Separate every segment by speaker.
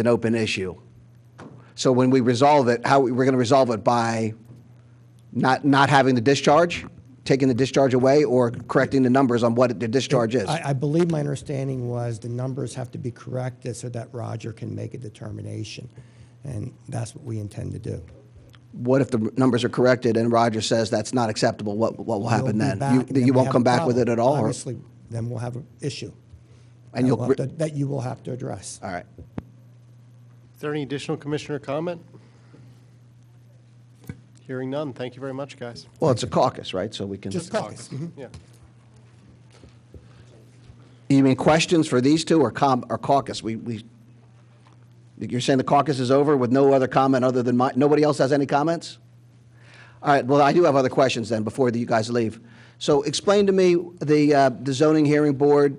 Speaker 1: an open issue. So when we resolve it, how, we're going to resolve it by not, not having the discharge, taking the discharge away, or correcting the numbers on what the discharge is?
Speaker 2: I, I believe my understanding was the numbers have to be corrected so that Roger can make a determination. And that's what we intend to do.
Speaker 1: What if the numbers are corrected and Roger says that's not acceptable? What, what will happen
Speaker 2: We'll be
Speaker 1: then?
Speaker 2: back,
Speaker 1: You-
Speaker 2: and then
Speaker 1: You
Speaker 2: we
Speaker 1: won't
Speaker 2: have
Speaker 1: come
Speaker 2: a
Speaker 1: back with it
Speaker 2: problem.
Speaker 1: at all? or-
Speaker 2: Obviously, then we'll have an issue.
Speaker 1: And
Speaker 2: that
Speaker 1: you'll,
Speaker 2: we'll
Speaker 1: re-
Speaker 2: have to- That you will have to address.
Speaker 1: all right.
Speaker 3: Is there any additional commissioner comment? Hearing none. Thank you very much, guys.
Speaker 1: Well, it's a caucus, right? So we can.
Speaker 2: Just caucus. Mhm.
Speaker 3: Yeah.
Speaker 1: You mean questions for these two or com, or caucus? We, we, you're saying the caucus is over with no other comment other than my, nobody else has any comments? All right, well, I do have other questions then before you guys leave. So explain to me, the, uh, the zoning hearing board,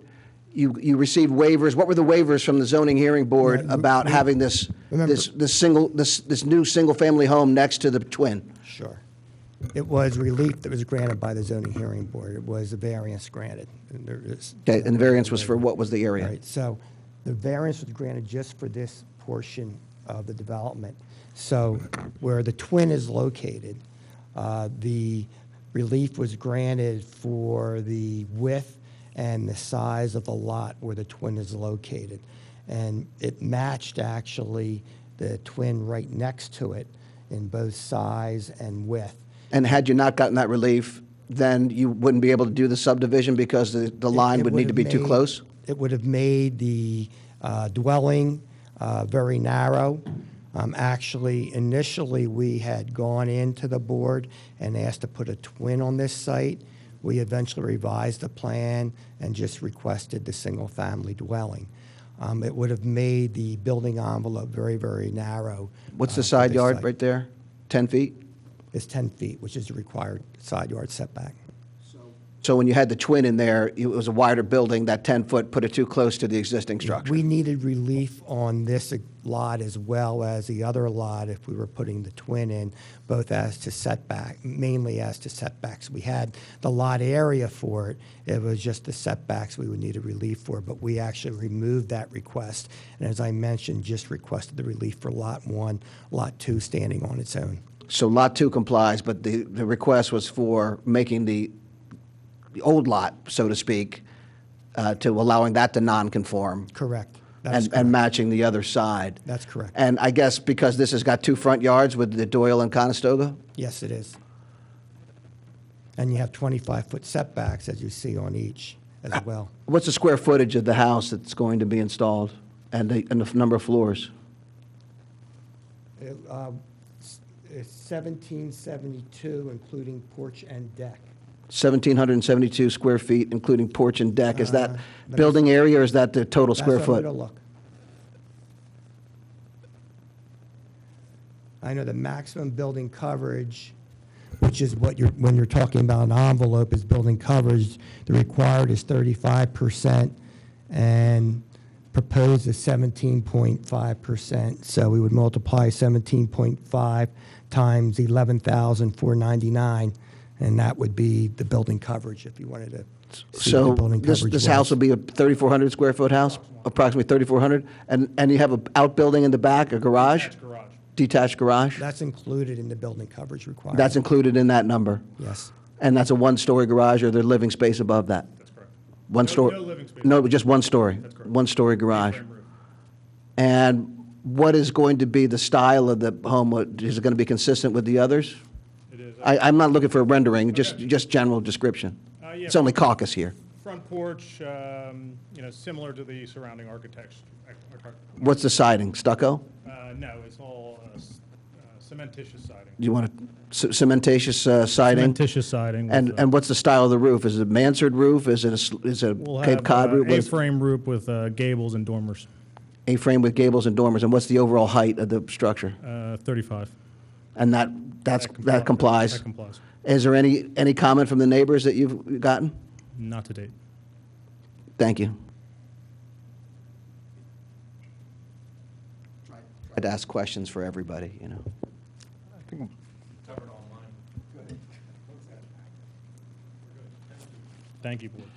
Speaker 1: you, you received waivers. What were the waivers from the zoning hearing board
Speaker 2: Yeah, you-
Speaker 1: about
Speaker 2: you-
Speaker 1: having this,
Speaker 2: remember-
Speaker 1: this, this single, this, this new single-family home next to the twin?
Speaker 2: Sure. It was relief that was granted by the zoning hearing board. It was a variance granted. And there is-
Speaker 1: Okay, and the variance was for what was the
Speaker 2: All
Speaker 1: area?
Speaker 2: right, so the variance was granted just for this portion of the development. So where the twin is located, uh, the relief was granted for the width and the size of the lot where the twin is located. And it matched actually the twin right next to it in both size and width.
Speaker 1: And had you not gotten that relief, then you wouldn't be able to do the subdivision because the, the
Speaker 2: it-
Speaker 1: line
Speaker 2: it
Speaker 1: would need to
Speaker 2: have
Speaker 1: be too
Speaker 2: made-
Speaker 1: close?
Speaker 2: It would have made the uh, dwelling uh, very narrow. Um, Actually, initially, we had gone into the board and asked to put a twin on this site. We eventually revised the plan and just requested the single-family dwelling. Um, It would have made the building envelope very, very narrow.
Speaker 1: What's
Speaker 2: uh,
Speaker 1: the
Speaker 2: for
Speaker 1: side
Speaker 2: this
Speaker 1: yard
Speaker 2: site.
Speaker 1: right there? 10 feet?
Speaker 2: It's 10 feet, which is the required side yard setback.
Speaker 1: So when you had the twin in there, it was a wider building, that 10-foot put it too close to the existing structure?
Speaker 2: We needed relief on this lot as well as the other lot if we were putting the twin in, both as to setback, mainly as to setbacks. We had the lot area for it, it was just the setbacks we would need a relief for, but we actually removed that request. And as I mentioned, just requested the relief for Lot 1, Lot 2 standing on its own.
Speaker 1: So Lot 2 complies, but the, the request was for making the, the old lot, so to speak, uh, to allowing that to non-conform?
Speaker 2: Correct. That is
Speaker 1: and, and matching the other side?
Speaker 2: That's correct.
Speaker 1: And I guess because this has got two front yards with the Doyle and Conestoga?
Speaker 2: Yes, it is. And you have 25-foot setbacks, as you see on each as well.
Speaker 1: What's the square footage of the house that's going to be installed and the, and the number of floors?
Speaker 2: It, uh, s- It's 1772, including porch and deck.
Speaker 1: 1,772 square feet, including porch and deck. Is that
Speaker 2: Uh, but
Speaker 1: building area or is that the total
Speaker 2: That's
Speaker 1: square
Speaker 2: what I'm
Speaker 1: foot?
Speaker 2: gonna look. I know the maximum building coverage, which is what you're, when you're talking about an envelope, is building coverage. The required is 35% and proposed is 17.5%. So we would multiply 17.5 times 11,499, and that would be the building coverage if you wanted to. see what the
Speaker 1: So
Speaker 2: building
Speaker 1: this,
Speaker 2: coverage
Speaker 1: this
Speaker 2: was.
Speaker 1: house will be a 3,400 square foot house, approximately 3,400? And, and you have an outbuilding in the back, a garage? Detached garage.
Speaker 2: That's included in the building coverage requirement.
Speaker 1: That's included in that number?
Speaker 2: Yes.
Speaker 1: And that's a one-story garage, or their living space above that? That's correct. One
Speaker 4: No-
Speaker 1: story?
Speaker 4: no living space.
Speaker 1: No, just one story? That's
Speaker 4: correct.
Speaker 1: One-story garage?
Speaker 4: Frame roof.
Speaker 1: And what is going to be the style of the home? What- Is it going to be consistent with the others?
Speaker 4: It is.
Speaker 1: I, I'm not looking for a rendering, just,
Speaker 4: Okay.
Speaker 1: just general description.
Speaker 4: Uh, yeah.
Speaker 1: It's only caucus here.
Speaker 4: Front porch, um, you know, similar to the surrounding architecture.
Speaker 1: What's the siding, stucco?
Speaker 4: Uh, no, it's all uh, s- uh, cementitious siding.
Speaker 1: Do you want a c- cementatious uh, siding?
Speaker 4: Cementitious siding. with,
Speaker 1: And,
Speaker 4: uh,
Speaker 1: and what's the style of the roof? Is it a mansard roof? Is it a, s- is it
Speaker 4: we'll
Speaker 1: a Cape
Speaker 4: have,
Speaker 1: Cod
Speaker 4: uh,
Speaker 1: roof? What is-
Speaker 4: A-frame roof with uh, gables and dormers,
Speaker 1: A-frame with gables and dormers, and what's the overall height of the structure?
Speaker 4: uh, 35.
Speaker 1: And that, that's, that complies?
Speaker 4: That complies.
Speaker 1: Is there any, any comment from the neighbors that you've gotten?
Speaker 4: Not to date.
Speaker 1: Thank you. Tried to ask questions for everybody, you know.
Speaker 4: Thank you, board.